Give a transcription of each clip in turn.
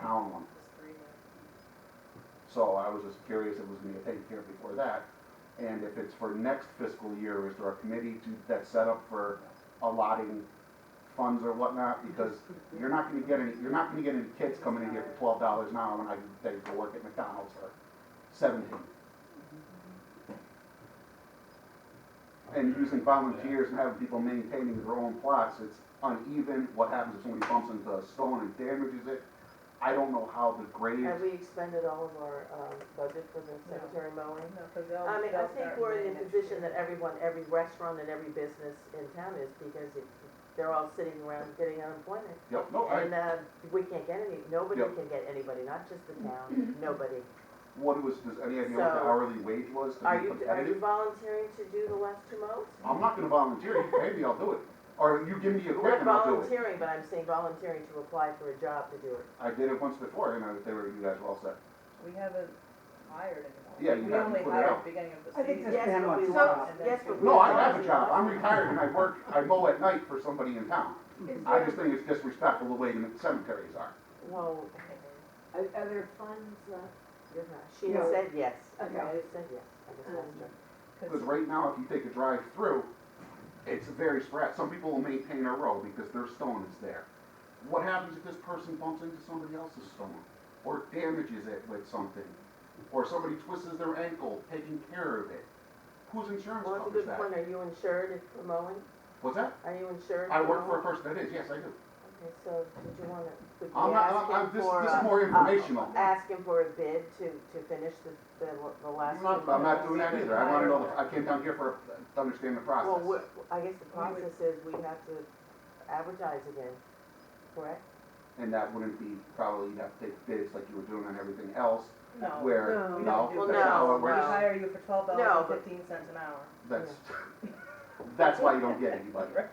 town one. So I was just curious if it was gonna get taken care of before that. And if it's for next fiscal year, is there a committee to, that's set up for allotting funds or whatnot? Because you're not gonna get any, you're not gonna get any kids coming in here for twelve dollars an hour when I, they go work at McDonald's for seventeen. And using volunteers and having people maintaining their own plots, it's uneven. What happens if somebody bumps into a stone and damages it? I don't know how the grades. Have we expended all of our um, budget for the cemetery mowing? Oh, I mean, I think we're in a position that everyone, every restaurant and every business in town is because it- they're all sitting around getting unemployment. Yep, no, Oh, I, And uh, we can't get any, nobody Yep. can get anybody, not just the town, nobody. what was, does any idea what the So- hourly wage was to Are be you, are you competitive? volunteering to do the last two mows? I'm not gonna volunteer, maybe I'll do it, or you give me a grant Not and I'll do it. volunteering, but I'm saying volunteering to apply for a job to do it. I did it once before, and I, they were, you guys were all set. We haven't hired anyone. Yeah, you We haven't only put it hired out. at the beginning of the I think season. Yes, this- man but wants we a want- job. Yes, but we No, I want have a to job, I'm volunteer. retired and I work, I mow at night for somebody in town. Is I just there, think it's disrespectful the way the cemeteries are. Well, are are there funds left? you're not. she No. said yes. Okay. I just said yes. I just asked her. Because right now, if you take a drive through, it's very spread, some people will maintain a row because their stone is there. What happens if this person bumps into somebody else's stone, or damages it with something, or somebody twists their ankle taking care of it? Whose insurance Well, that's a covers good that? point. Are you insured if for mowing? What's that? Are you insured? I work for a mowing? person that is, yes, I do. Okay, so did you wanna, would I'm you not, ask I'm- I'm, him this, for, this is uh, more informational. ask him for a bid to, to finish the, the, the last? I'm not, two I'm not mows? doing that either, I wanna know, the- I came down here for, to understand the Well, process. we're- I guess the process is we have to advertise again, correct? And that wouldn't be, probably, you'd have to take bids like you were doing on everything else, No. where, we no, don't do that's that. not how Well, it We works. no. hire you for twelve No, dollars but- and fifteen cents an hour. That's, that's why you don't get anybody. Right.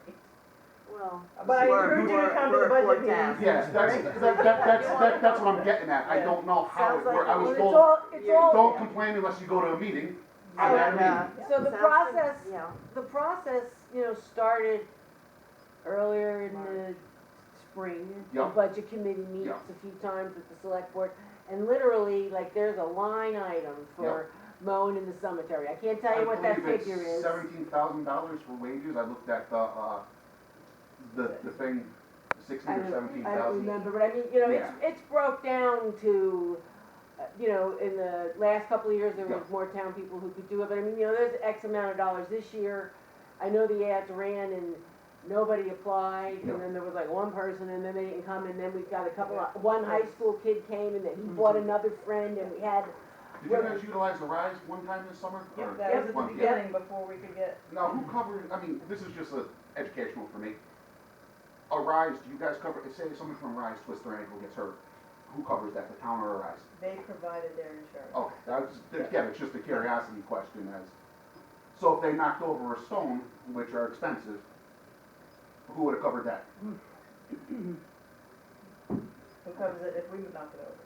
Well. But I we're- encourage you to we're- come to the we're- budget we're meeting. down. Yes, that's, that, that, that's, that- that's what I'm getting at, I don't know how it Sounds like worked, I was It's told, all, it's all, don't complain unless you go to a meeting, I'm So, at a uh, meeting. so the Sounds like- process, Yeah, the process, you know, started earlier in the spring. The Yeah. budget committee meets Yeah. a few times with the select board, and literally, like, there's a line item for mowing in the cemetery. I can't tell you what that figure is. Seventeen thousand dollars for wages, I looked at the, uh, the, the thing, sixteen I or don't- seventeen I don't thousand. remember, but I mean, you know, it's, it's broke down to, uh, you know, in the last couple of years, there was Yeah. more town people who could do it, but I mean, you know, there's X amount of dollars this year. I know the ads ran and nobody applied, Yeah. and then there was like one person, and then they didn't come, and then we got a couple of, one high school kid came, and then he brought another friend, and we had, Did you guys utilize the rise one time this summer? Or That was at the one- yeah. beginning before we could get, Now, who covers, I mean, this is just a educational for me. A rise, do you guys cover, say someone from rise twists their ankle, gets hurt, who covers that, the town or a rise? they provided their insurance. Okay, that's, again, it's just a curiosity question as, so if they knocked over a stone, which are expensive, who would have covered that? Who covers it if we would knock it over?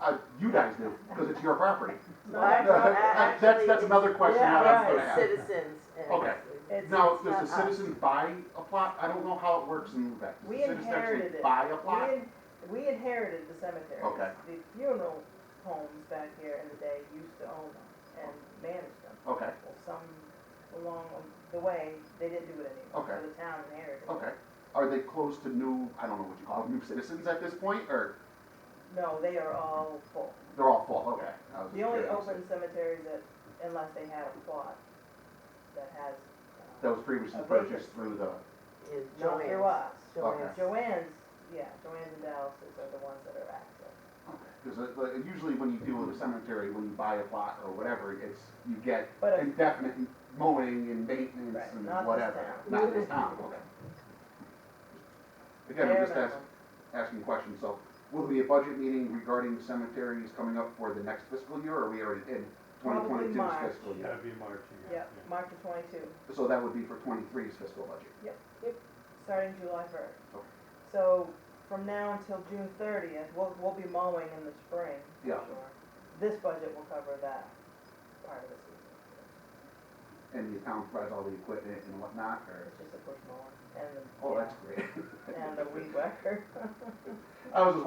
Uh, you guys do, because it's your property. Well, actually- That's- that's- that's another question Yeah, I was it's gonna ask. Citizens. and- Okay. It's- Now, it's does not the us. citizen buy a plot? I don't know how it works in Lubec. Does We the citizen inherited actually it. buy a We plot? in- We inherited the cemetery. Okay. The funeral homes back here in the day used to own them and manage them. Okay, Well, some along the way, they didn't do it anymore. Okay. So the town inherited it. okay. Are they closed to new, I don't know what you call them, new citizens at this point, or No, they are all full. they're all full? Okay. I was The only curious. open cemeteries that, unless they had a plot that has, uh, That was previously a vacant- purchased through the, Is Not Joanne's. through us. Joanne's. Joann's, yeah, Joann's and Dallas's are the ones that are active. because uh, usually when you deal with a cemetery, when you buy a plot or whatever, it's, you get But a- indefinite mowing and maintenance Right, and not this whatever. town. Not this town, okay. Again, I'm Bare just asking, minimum. asking questions, so will there be a budget meeting regarding cemeteries coming up for the next fiscal year, or are we already in Probably 2022's March. fiscal year? That'd be March, you Yep, got, yeah. March of twenty-two, So that would be for 23's fiscal budget. starting July first. Okay. So from now until June thirtieth, we'll, we'll be mowing in the spring. for Yeah. sure. This budget will cover that part of the season. And the town provides all the equipment and whatnot, or, It's just a push mower and the. oh, that's great. And the weed whacker. I was just wondering